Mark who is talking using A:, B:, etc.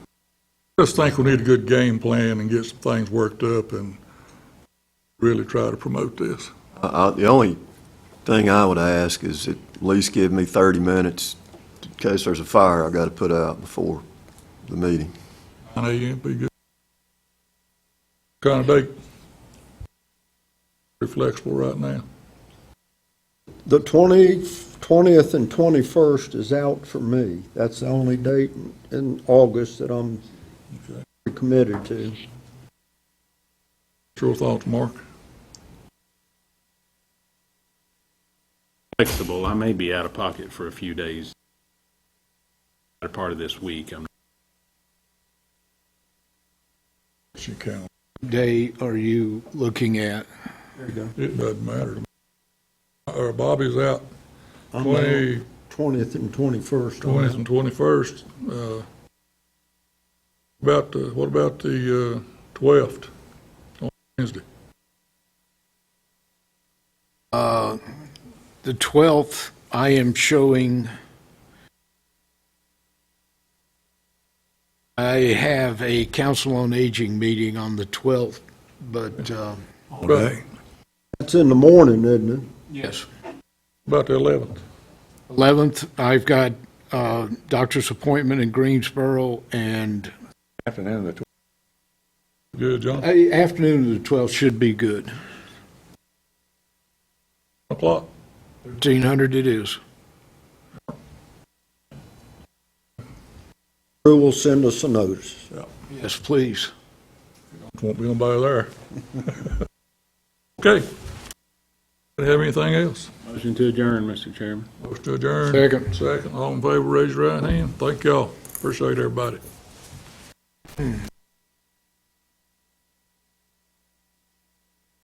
A: just think we need a good game plan and get some things worked up and really try to promote this.
B: I- I- The only thing I would ask is at least give me 30 minutes in case there's a fire I got to put out before the meeting.
A: I know you ain't be good. Kind of date. Pretty flexible right now.
C: The 20th, 20th and 21st is out for me. That's the only date in- in August that I'm
A: Okay.
C: committed to.
A: What's your thoughts, Mark?
D: flexible. I may be out of pocket for a few days. A part of this week, I'm
A: It's your calendar.
E: day are you looking at?
A: It doesn't matter to me. Or Bobby's out
C: I'm
A: twenty,
C: 20th and 21st. on
A: twentieth
C: that.
A: and twenty-first. Uh, about the, what about the, uh, twelfth on Wednesday?
E: Uh, The 12th, I am showing, I have a council on aging meeting on the 12th, but, uh,
A: Right.
C: That's in the morning, isn't it?
E: yes.
A: About the eleventh.
E: 11th, I've got uh, doctor's appointment in Greensboro, and
F: Afternoon, the tw-
A: Good, John. One
E: uh, afternoon of the 12th should be good.
A: o'clock.
E: 1300 it is.
C: Who will send us a notice?
E: Yes, please.
A: Won't be nobody there. Okay. Anybody have anything else?
D: motion to adjourn, Mr. Chairman.
A: Motion to adjourn.
E: Second.
A: Second. All in favor, raise your right hand. Thank y'all. Appreciate everybody.